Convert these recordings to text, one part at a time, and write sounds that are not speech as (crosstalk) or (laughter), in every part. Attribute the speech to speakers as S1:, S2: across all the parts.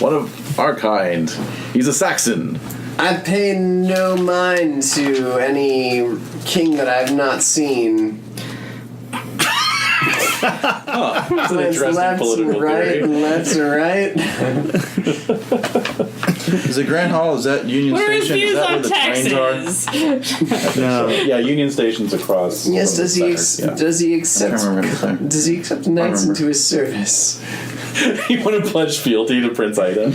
S1: one of our kind. He's a Saxon.
S2: I pay no mind to any king that I've not seen.
S1: That's an
S2: It's
S1: interesting
S2: left and
S1: political
S2: right
S1: theory.
S2: and left and
S1: (laughs)
S2: right.
S3: Is it Grand Hall? Is that Union
S4: What are his
S3: Station? Is
S4: views
S3: that where
S4: on
S3: the trains
S4: taxes?
S3: are?
S1: Um, Yeah, Union Station's across.
S2: Yes,
S1: from
S2: does
S1: the
S2: he ex-
S1: center,
S2: does he
S3: I can't
S2: accept
S3: remember anything.
S2: does he accept knights
S3: remember.
S2: into his service?
S1: yeah. (laughs) you want to pledge fealty to Prince Ida?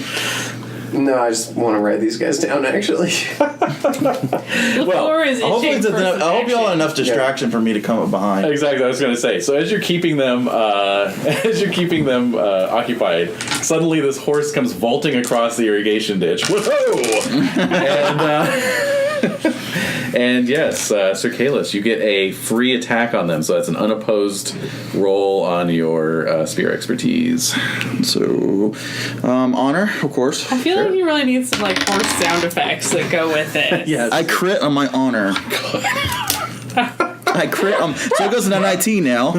S2: No, I just want to write these guys down. Actually,
S4: Lafleur is itching
S3: Hopefully, it's
S4: for
S3: enough,
S4: some
S3: I hope y'all
S4: action.
S3: have enough distraction for me to come up behind.
S1: Exactly, I was going to say. So as you're keeping them, uh, (laughs) as you're keeping them uh, occupied, suddenly this horse comes vaulting across the irrigation ditch. Whoa! and, uh, (laughs) and yes, uh, Sir Kalis, you get a free attack on them, so that's an unopposed roll on your uh, spear expertise.
S3: So, um, honor, of course.
S4: I feel like you really need some like horse sound effects that go
S1: (laughs)
S4: with it.
S1: Yes,
S3: I crit on my honor. I crit on. So it goes to 19 now.
S1: I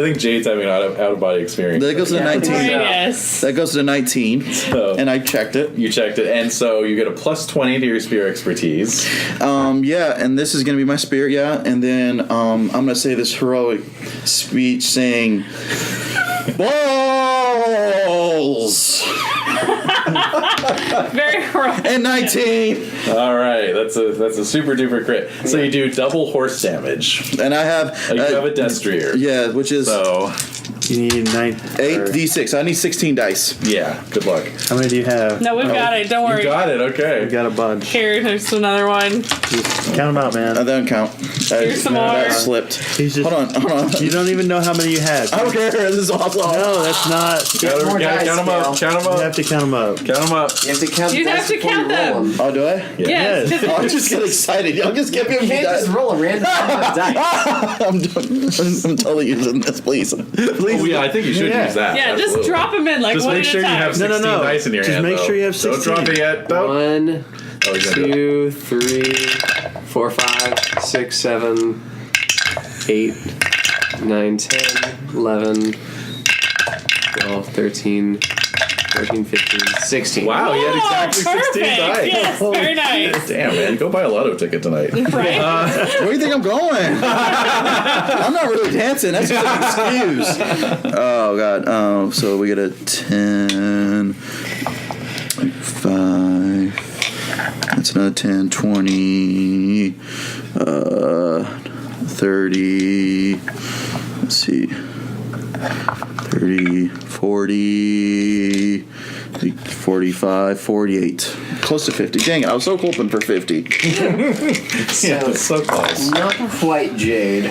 S1: think Jade's having an out of, out of body experience.
S3: That goes to
S2: Yeah.
S3: 19.
S4: Right,
S2: Yeah.
S4: yes.
S3: That goes to 19.
S1: So
S3: And I checked it.
S1: you checked it, and so you get a plus twenty to your spear expertise.
S3: Um, yeah, and this is gonna be my spirit, yeah. And then um, I'm gonna say this heroic speech saying, Balls!
S4: Very (laughs) right.
S3: And 19!
S1: All right, that's a that's a super duper crit. So you do double horse damage.
S3: And I have.
S1: Uh, You
S3: uh,
S1: have a destrier.
S3: yeah, which is
S1: So
S5: You need nine.
S3: 8d6. I need 16 dice.
S1: yeah, good luck.
S5: How many do you have?
S4: No, we've got it. Don't
S1: Oh, You
S4: worry.
S1: got it.
S5: I
S1: Okay.
S5: got a bunch.
S4: Here, there's another one.
S5: Count them out,
S3: Uh,
S5: man.
S3: that don't count. I-
S4: Here's some
S3: that
S4: more.
S3: slipped.
S5: He's just.
S3: Hold on, hold on.
S5: You don't even know how many you
S3: (laughs)
S5: had.
S3: I don't care. This is awful.
S5: No, that's not.
S1: Count,
S2: (laughs) more dice,
S1: them up.
S2: Gail.
S1: Count them
S5: You
S1: up.
S5: have to count them up.
S1: Count them up.
S2: you have to count.
S4: You
S2: the
S4: have
S2: dice
S4: to
S2: before
S4: count
S2: you roll
S4: them.
S3: Oh, do I?
S4: Yes.
S5: Yes.
S3: (laughs) Oh, I just get excited. Y'all just give me a
S2: You can't just roll a random number
S1: (laughs)
S2: of dice.
S3: (laughs) I'm, done. I'm totally using this, please. Please.
S1: Oh, yeah, I think you should
S5: Yeah.
S1: use that.
S4: Yeah,
S1: absolutely.
S4: just drop them in like
S1: Just
S4: one
S1: make
S4: at
S1: sure
S4: a
S1: you
S4: time. Oh,
S1: have
S5: No, no,
S1: sixteen
S5: no.
S1: dice in your
S5: Just
S1: hand.
S5: make
S1: though.
S5: sure you have
S1: Don't drop
S5: 16.
S1: it yet. Don't.
S2: One,
S1: Oh, he's gonna do it.
S2: two, three, four, five, six, seven, eight, nine, ten, eleven, twelve, thirteen, fourteen, fifteen, sixteen. (laughs)
S1: Wow, you had exactly
S4: oh, perfect.
S1: sixteen dice.
S4: Yes, very nice.
S1: Damn man, go buy a lotto ticket tonight.
S4: (laughs) Right?
S1: Uh,
S3: Where do you think I'm going? (laughs) I'm not really dancing. That's just an excuse. Oh god. Um, so we get a ten. Five. That's another 10, 20, uh, 30. Let's see. 30, 40, 45, 48. Close to 50. Dang it, I was so hoping for 50.
S1: yeah, it's so close.
S2: Not quite Jade.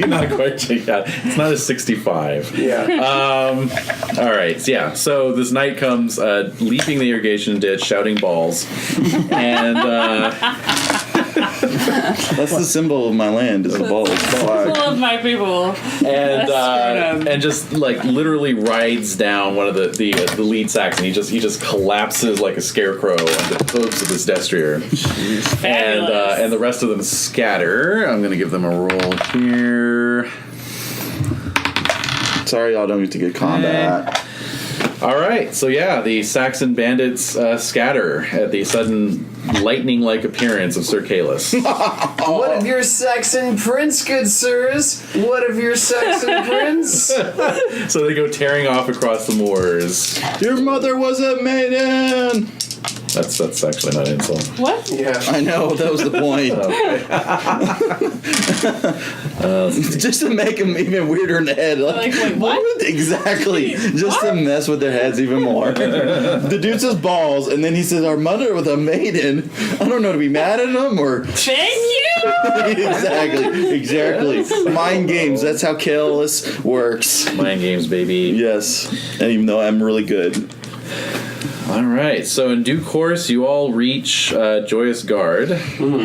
S1: (laughs) You're not quite checked out. It's not a sixty-five. Um,
S2: Yeah.
S1: All right, so yeah. So this knight comes uh, leaping the irrigation ditch, shouting balls, and uh,
S3: That's the symbol of my land is a ball.
S4: (laughs) Full of my people.
S1: and
S4: That's
S1: uh,
S4: right.
S1: and just like literally rides down one of the the, uh, the lead saxon. He just he just collapses like a scarecrow on the hooves of his destrier, and
S4: Fabulous.
S1: uh, and the rest of them scatter. I'm gonna give them a roll here.
S3: Sorry, y'all don't get to get combat.
S1: All right, so yeah, the Saxon bandits uh, scatter at the sudden lightning-like appearance of Sir Kalis.
S3: (laughs)
S2: What of your Saxon prince, good sirs? What of your Saxon prince?
S1: so they go tearing off across the moors.
S3: Your mother was a maiden.
S1: That's that's actually not an insult.
S4: what?
S2: (laughs) Yeah.
S3: I know that was the
S4: (laughs)
S3: point. (laughs) just to make them even weirder in the head. Like,
S4: Oh, Like, wait, what?
S3: would- exactly. Just to mess with their heads even
S4: (laughs)
S3: more. the dude says balls, and then he says, "Our mother was a maiden." I don't know to be mad at him or (laughs)
S1: (laughs)
S4: Thank you.
S3: exactly, exactly.
S4: (laughs)
S3: Mind games. That's how careless works.
S1: Mind games, baby.
S3: Yes, and even though I'm really good.
S1: All right. So in due course, you all reach uh, Joyous Guard,
S3: Hmm.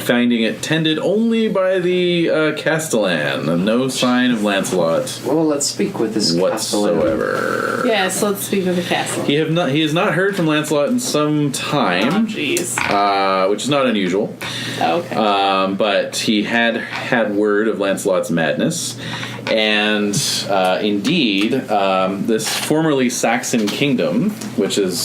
S1: finding it tended only by the uh, Castellan. No sign of Lancelot
S2: Well, let's speak with this castellan.
S1: whatsoever.
S4: Yes, let's speak of the castle.
S1: He have not. He has not heard from Lancelot in some
S4: Oh,
S1: time,
S4: jeez.
S1: uh, which is not unusual.
S4: Okay.
S1: Um, but he had had word of Lancelot's madness, and uh, indeed, um, this formerly Saxon kingdom, which is